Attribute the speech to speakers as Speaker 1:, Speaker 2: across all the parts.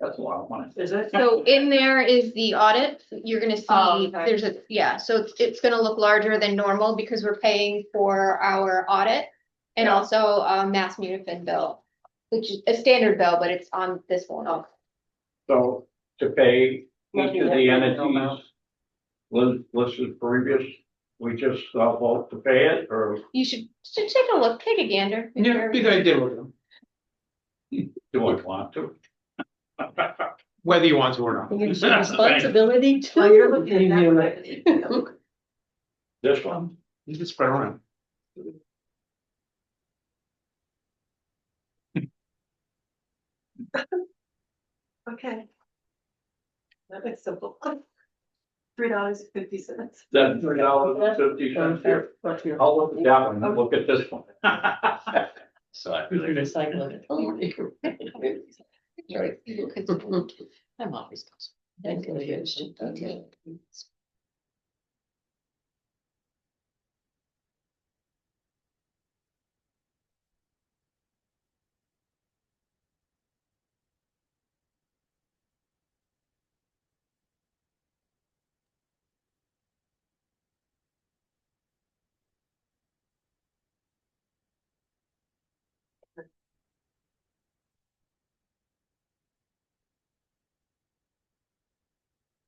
Speaker 1: That's a lot of money.
Speaker 2: Is it?
Speaker 3: So in there is the audit, you're gonna
Speaker 2: Oh,
Speaker 3: see,
Speaker 2: okay.
Speaker 3: there's a, yeah, so it's, it's gonna look larger than normal because we're paying for our audit. And
Speaker 2: Yeah.
Speaker 3: also, uh, Mass Munifin bill, which is a standard bill, but it's on this one.
Speaker 1: So to pay each
Speaker 2: Looking
Speaker 1: of
Speaker 2: at
Speaker 1: the
Speaker 2: the original
Speaker 1: entities
Speaker 2: amount.
Speaker 1: lis- listed previous, we just uh, vote to pay it or
Speaker 3: You should, should take a look, take a gander. make
Speaker 4: Yeah,
Speaker 3: sure-
Speaker 4: big idea with them,
Speaker 1: do I want to?
Speaker 4: whether you want to or not.
Speaker 5: You should responsibility too.
Speaker 2: Oh, you're looking at
Speaker 5: You
Speaker 2: that.
Speaker 5: knew it.
Speaker 1: This one?
Speaker 4: You can spread around.
Speaker 5: Okay. That makes simple. Three dollars fifty cents.
Speaker 1: Then three dollars and fifty cents here. I'll look at that one, and look at this one.
Speaker 6: So.
Speaker 4: Mm-hmm.
Speaker 5: I'm always. Thank you.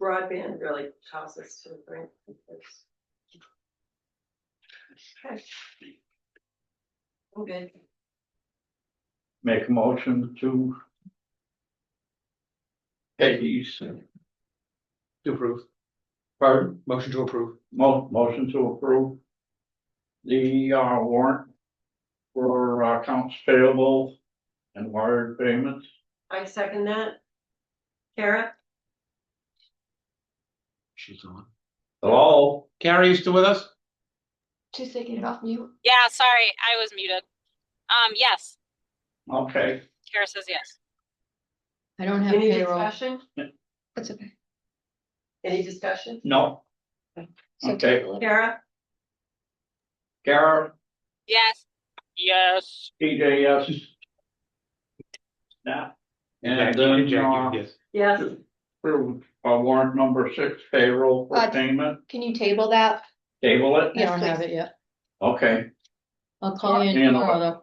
Speaker 5: Broadband really costs us to bring. Okay. I'm good.
Speaker 1: Make a motion to pay these,
Speaker 4: To approve,
Speaker 1: pardon,
Speaker 4: motion to approve.
Speaker 1: mo- motion to approve the uh, warrant for uh, accounts payable and wired payments.
Speaker 5: I second that. Kara?
Speaker 4: She's on.
Speaker 1: Hello?
Speaker 4: Carrie, you still with us?
Speaker 3: Just taking it off mute.
Speaker 7: Yeah, sorry, I was muted. Um, yes,
Speaker 1: Okay,
Speaker 7: Kara says yes.
Speaker 3: I don't have
Speaker 5: Any
Speaker 3: payroll.
Speaker 5: discussion?
Speaker 3: That's okay.
Speaker 5: Any discussion?
Speaker 1: no,
Speaker 3: So
Speaker 1: Okay.
Speaker 3: table it.
Speaker 5: Kara?
Speaker 1: Kara,
Speaker 7: Yes. Yes.
Speaker 1: TJS. Now, and
Speaker 4: Jackie,
Speaker 1: then,
Speaker 4: Jackie,
Speaker 1: uh,
Speaker 4: yes.
Speaker 5: Yes.
Speaker 1: approve, uh, warrant number six payroll for
Speaker 3: Uh,
Speaker 1: payment,
Speaker 3: Can you table that?
Speaker 1: table it,
Speaker 3: Yes,
Speaker 8: I don't have
Speaker 3: please.
Speaker 8: it yet.
Speaker 1: okay,
Speaker 8: I'll call you
Speaker 1: Yeah, no.
Speaker 8: tomorrow though.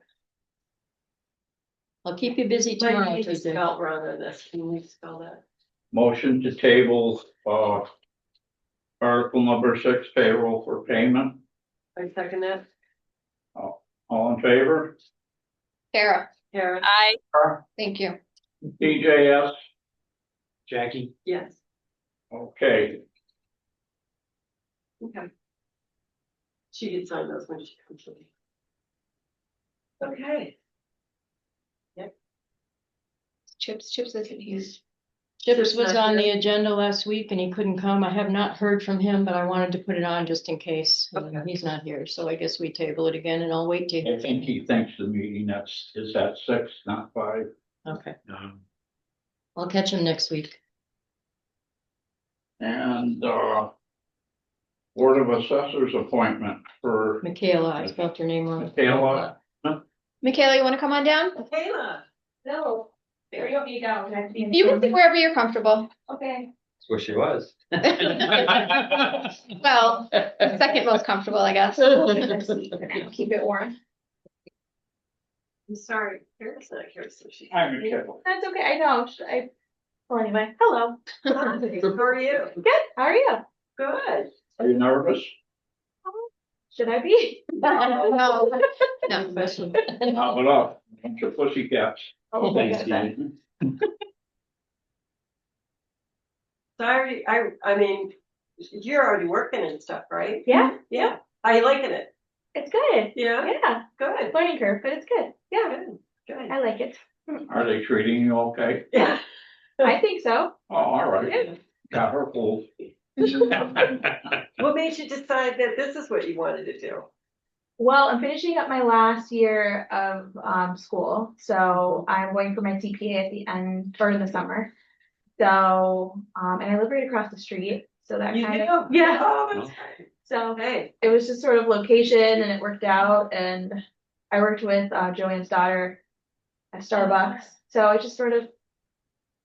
Speaker 8: I'll keep you busy
Speaker 5: Might
Speaker 8: tomorrow,
Speaker 5: need to
Speaker 8: Tuesday.
Speaker 5: spell wrong on this. Can we spell that?
Speaker 1: motion to table, uh. Article number six payroll for payment,
Speaker 5: I second that.
Speaker 1: all in favor?
Speaker 3: Sarah,
Speaker 5: Kara?
Speaker 7: I,
Speaker 3: thank you.
Speaker 1: TJS,
Speaker 4: Jackie,
Speaker 5: Yes.
Speaker 1: okay,
Speaker 5: Okay. She can sign those when she comes to me. Okay,
Speaker 3: Chips, Chips isn't here.
Speaker 8: Chips was
Speaker 5: not
Speaker 8: on the
Speaker 5: here.
Speaker 8: agenda last week and he couldn't come. I have not heard from him, but I wanted to put it on just in case. And
Speaker 5: Okay.
Speaker 8: He's not here, so I guess we table it again and I'll wait to,
Speaker 1: I think he thinks the meeting that's, is at six, not five,
Speaker 8: okay.
Speaker 4: um,
Speaker 8: I'll catch him next week.
Speaker 1: and, uh. Board of Assessors appointment for
Speaker 8: Michaela, I spelled your name wrong.
Speaker 1: Michaela.
Speaker 3: Michaela, you wanna come on down?
Speaker 5: Kayla. No. There you go.
Speaker 3: You can sit wherever you're comfortable.
Speaker 5: Okay.
Speaker 6: Where she was.
Speaker 3: Well, second most comfortable, I guess. Keep it warm.
Speaker 5: I'm sorry, Kara's not here, so she.
Speaker 1: I'm Michaela.
Speaker 9: That's okay. I know. Should I, well, anyway, hello.
Speaker 5: Hi, How are you?
Speaker 9: Good. How are you?
Speaker 5: Good.
Speaker 1: Are you nervous?
Speaker 9: Should I be?
Speaker 3: No, no.
Speaker 8: Especially-
Speaker 1: Knock it off. Bunch of pussy cats.
Speaker 8: Oh,
Speaker 1: Thank you.
Speaker 5: Sorry, I, I mean, you're already working and stuff, right?
Speaker 9: Yeah,
Speaker 5: Yeah, are you liking it?
Speaker 9: it's good.
Speaker 5: Yeah,
Speaker 9: Yeah,
Speaker 5: good,
Speaker 9: learning curve, but it's good. Yeah,
Speaker 5: good, good.
Speaker 9: I like it.
Speaker 1: Are they treating you okay?
Speaker 5: Yeah.
Speaker 9: I think so.
Speaker 1: Oh, all right. Got her pulled.
Speaker 5: What made you decide that this is what you wanted to do?
Speaker 9: Well, I'm finishing up my last year of um, school, so I'm going for my CPA at the end or in the summer. So, um, and I live right across the street, so that
Speaker 5: You
Speaker 9: kind of
Speaker 5: do?
Speaker 9: Yeah.
Speaker 5: Oh, that's great.
Speaker 9: so
Speaker 5: Hey,
Speaker 9: it was just sort of location and it worked out and I worked with uh, Joanne's daughter at Starbucks. So it just sort of